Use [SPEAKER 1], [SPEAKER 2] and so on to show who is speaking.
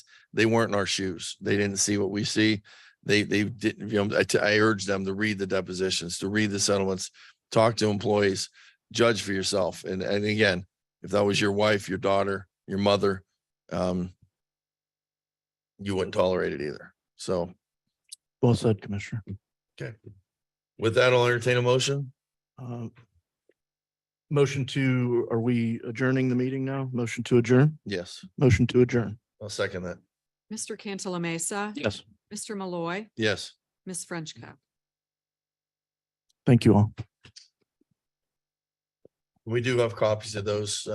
[SPEAKER 1] they weren't in our shoes. They didn't see what we see. They, they didn't, you know, I, t- I urge them to read the depositions, to read the settlements, talk to employees, judge for yourself. And, and again, if that was your wife, your daughter, your mother, um, you wouldn't tolerate it either. So
[SPEAKER 2] Well said, Commissioner.
[SPEAKER 1] with that, I'll entertain a motion.
[SPEAKER 2] Um, Motion to, are we adjourning the meeting now? Motion to adjourn?
[SPEAKER 1] Yes,
[SPEAKER 2] Motion to adjourn.
[SPEAKER 1] I'll second that.
[SPEAKER 3] Mr. Cantala Mesa,
[SPEAKER 2] Yes.
[SPEAKER 3] Mr. Malloy,
[SPEAKER 1] Yes.
[SPEAKER 3] Ms. Frenchco.
[SPEAKER 2] Thank you all.
[SPEAKER 1] We do have copies of those